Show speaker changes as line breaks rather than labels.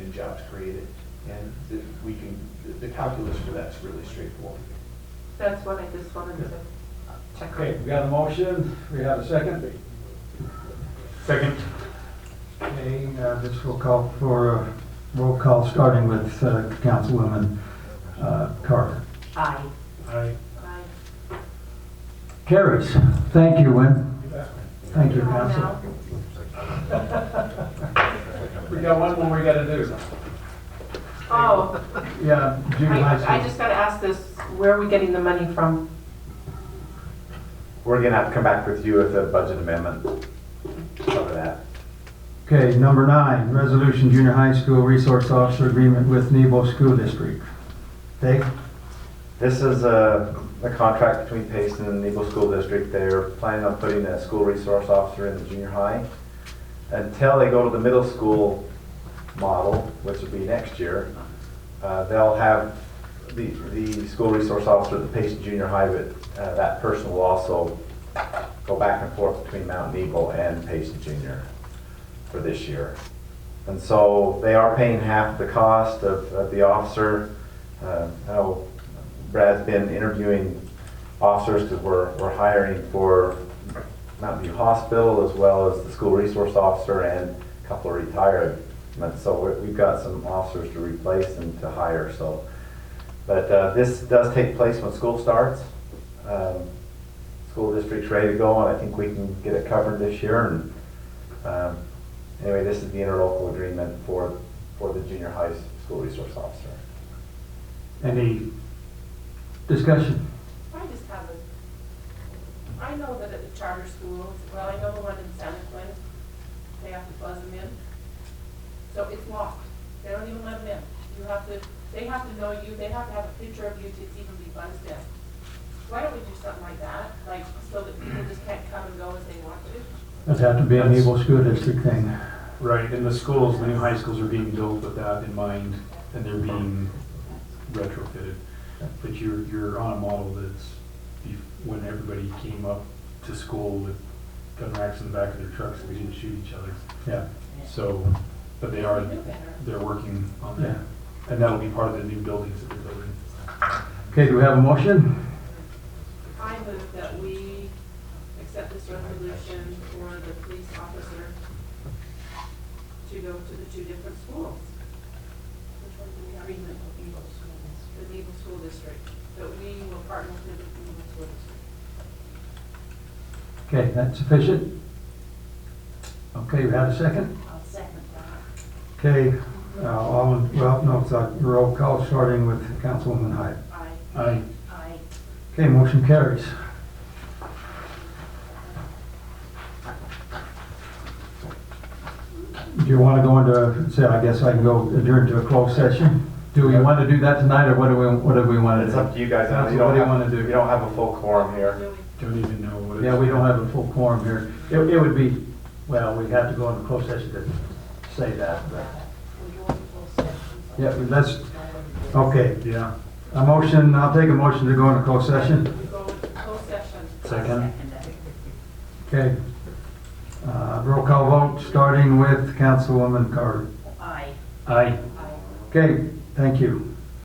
and jobs created. And the- we can, the- the calculus for that's really straightforward.
That's what I just wanted to check
Okay,
on.
we got a motion, we have a second.
Second.
Okay, uh, this will call for a roll call, starting with uh, Councilwoman uh, Carter.
Aye.
Aye.
Aye.
Carries. Thank you, Wynn. Thank you,
Come on
Council.
now.
We got one more we gotta do.
Oh,
Yeah, junior high
I, I
school.
just gotta ask this, where are we getting the money from?
We're gonna have to come back with you with a budget amendment over that.
Okay, number nine, resolution junior high school resource officer agreement with Nebo School District. Dave?
This is a, a contract between Payson and Eagle School District. They're planning on putting a school resource officer in the junior high. Until they go to the middle school model, which will be next year, uh, they'll have the, the school resource officer at the Payson Junior High, but uh, that person will also go back and forth between Mount Eagle and Payson Junior for this year. And so they are paying half the cost of, of the officer. Uh, I know Brad's been interviewing officers because we're, we're hiring for Mountain View Hospital as well as the school resource officer and a couple of retirements. So we- we've got some officers to replace and to hire, so. But uh, this does take place when school starts. Um, School district's ready to go and I think we can get it covered this year and um, Anyway, this is the interlocal agreement for, for the junior high s- school resource officer.
Any discussion?
I just have a, I know that at the charter schools, well, I know the one in Santa Quinn, they have to buzz them in. So it's locked. They don't even let them in. You have to, they have to know you, they have to have a picture of you to even be buzzed in. Why don't we do something like that, like, so that people just can't come and go as they want to?
That'd have to be a Nebo School District thing.
Right, and the schools, the new high schools are being built with that in mind, and they're being retrofitted. But you're, you're on a model that's, bef- when everybody came up to school with gun racks in the back of their trucks, we didn't shoot each other.
Yeah.
So, but they are,
We knew better.
they're working on that, and that'll be part of the new buildings that they're building.
Okay, do we have a motion?
I move that we accept this resolution for the police officer to go to the two different schools. Which one do we have? The Eagle School District, that we will partner with the Eagle School District.
Okay, that's sufficient? Okay, we have a second?
I'll second that.
Okay, uh, all, in- well, no, it's a roll call, starting with Councilwoman Hyde.
Aye.
Aye.
Aye.
Okay, motion carries. Do you want to go into, say, I guess I can go adjourn to a closed session? Do we want to do that tonight, or what do we, what do we want to do?
It's up to you guys. I know
Council, What do you
have-
want to do?
You don't have a full quorum here.
Don't even know what it's.
Yeah, we don't have a full quorum here. It, it would be, well, we'd have to go into closed session to say that, but. Yeah, but that's, okay.
Yeah.
A motion, I'll take a motion to go into closed session.
We go into closed session.
Second?
Okay. Uh, roll call vote, starting with Councilwoman Carter.
Aye.
Okay, thank you.